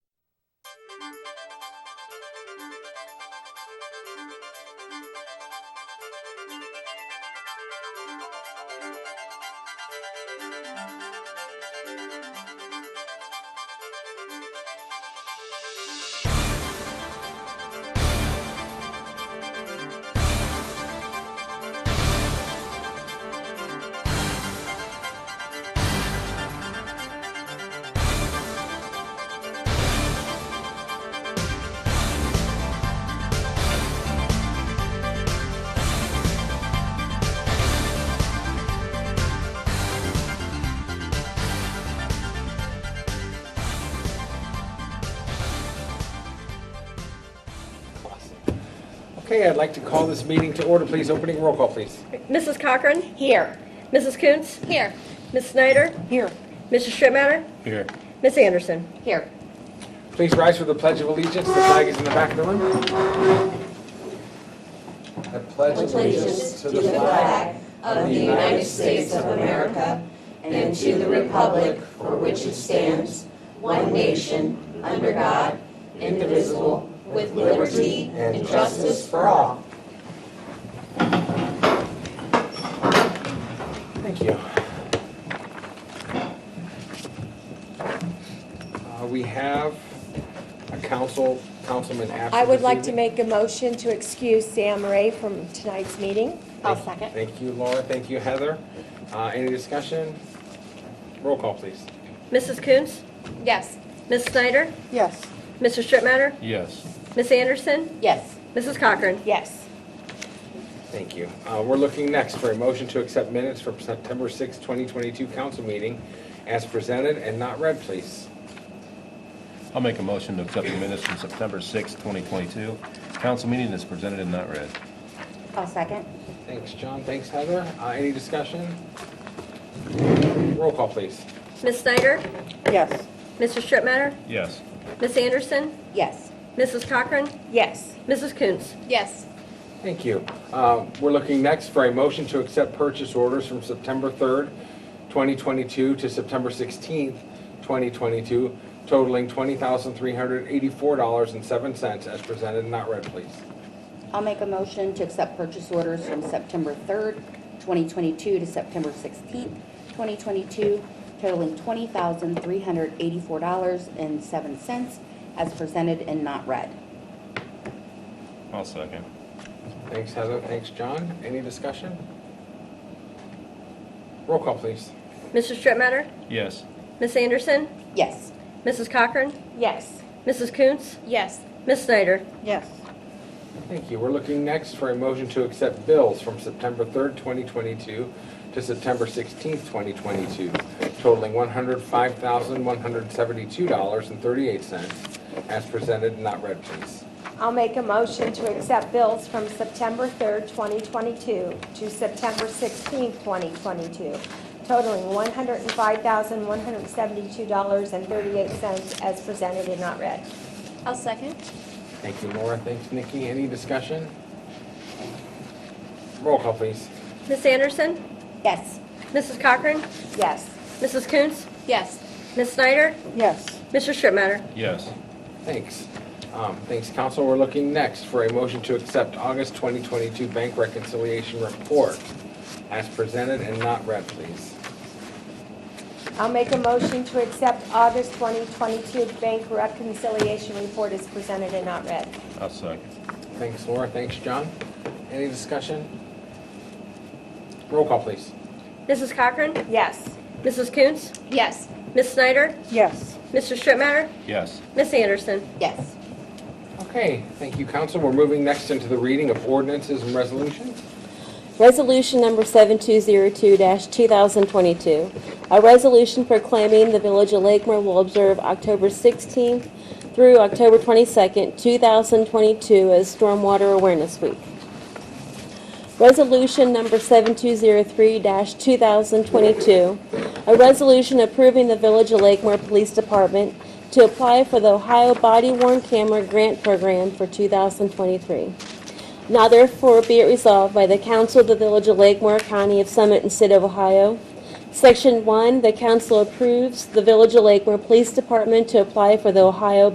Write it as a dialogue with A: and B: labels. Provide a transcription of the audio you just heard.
A: Okay, I'd like to call this meeting to order, please. Opening roll call, please.
B: Mrs. Cochran?
C: Here.
B: Mrs. Coontz?
C: Here.
B: Ms. Snyder?
C: Here.
B: Mrs. Strittmatter?
A: Here.
B: Ms. Anderson?
C: Here.
A: Please rise for the Pledge of Allegiance. The flag is in the back of the room. I pledge allegiance to the
D: flag of the United States of America and to the republic for which it stands, one nation, under God, indivisible, with liberty and justice for all.
A: Thank you. Uh, We have a council, councilman absent.
B: I would
A: this
B: like to
A: evening.
B: make a motion to excuse Sam Ray from tonight's meeting.
C: I'll second.
A: Thank you, Laura. Thank you, Heather. Uh, Any discussion? Roll call, please.
B: Mrs. Coontz?
C: Yes.
B: Ms. Snyder?
C: Yes.
B: Mr. Strittmatter?
E: Yes.
B: Ms. Anderson?
C: Yes.
B: Mrs. Cochran?
C: Yes.
A: Thank you. Uh, We're looking next for a motion to accept minutes from September 6, 2022 council meeting as presented and not read, please.
E: I'll make a motion to accept the minutes from September 6, 2022. Council meeting is presented and not read.
C: I'll second.
A: Thanks, John. Thanks, Heather. Uh, Any discussion? Roll call, please.
B: Ms. Snyder?
C: Yes.
B: Mr. Strittmatter?
E: Yes.
B: Ms. Anderson?
C: Yes.
B: Mrs. Cochran?
C: Yes.
B: Mrs. Coontz?
C: Yes.
A: Thank you. Uh, We're looking next for a motion to accept purchase orders from September 3rd, 2022 to September 16th, 2022 totaling $20,384.07 as presented and not read, please.
D: I'll make a motion to accept purchase orders from September 3rd, 2022 to September 16th, 2022 totaling $20,384.07 as presented and not read.
E: I'll second.
A: Thanks, Heather. Thanks, John. Any discussion? Roll call, please.
B: Mr. Strittmatter?
E: Yes.
B: Ms. Anderson?
D: Yes.
B: Mrs. Cochran?
C: Yes.
B: Mrs. Coontz?
C: Yes.
B: Ms. Snyder?
C: Yes.
A: Thank you. We're looking next for a motion to accept bills from September 3rd, 2022 to September 16th, 2022 totaling $105,172.38 as presented and not read, please.
F: I'll make a motion to accept bills from September 3rd, 2022 to September 16th, 2022, totaling $105,172.38 as presented and not read.
C: I'll second.
A: Thank you, Laura. Thanks, Nikki. Any discussion? Roll call, please.
B: Ms. Anderson?
D: Yes.
B: Mrs. Cochran?
F: Yes.
B: Mrs. Coontz?
C: Yes.
B: Ms. Snyder?
D: Yes.
B: Mr. Strittmatter?
E: Yes.
A: Thanks. Um, Thanks, Council. We're looking next for a motion to accept August 2022 Bank Reconciliation Report as presented and not read, please.
F: I'll make a motion to accept August 2022 bank reconciliation report as presented and not read.
E: I'll second.
A: Thanks, Laura. Thanks, John. Any discussion? Roll call, please.
B: Mrs. Cochran?
F: Yes.
B: Mrs. Coontz?
C: Yes.
B: Ms. Snyder?
D: Yes.
B: Mr. Strittmatter?
E: Yes.
B: Ms. Anderson?
D: Yes.
A: Okay, thank you, Council. We're moving next into the reading of ordinances and resolutions.
G: Resolution number 7202-2022, a resolution proclaiming the Village of Lakemore will observe October 16th through October 22nd, 2022 as Stormwater Awareness Week. Resolution number 7203-2022, a resolution approving the Village of Lakemore Police Department to apply for the Ohio Body Worn Camera Grant Program for 2023. Now therefore be it resolved by the Council of the Village of Lakemore, County of Summit and City of Ohio. Section 1, the council approves the Village of Lakemore Police Department to apply for the Ohio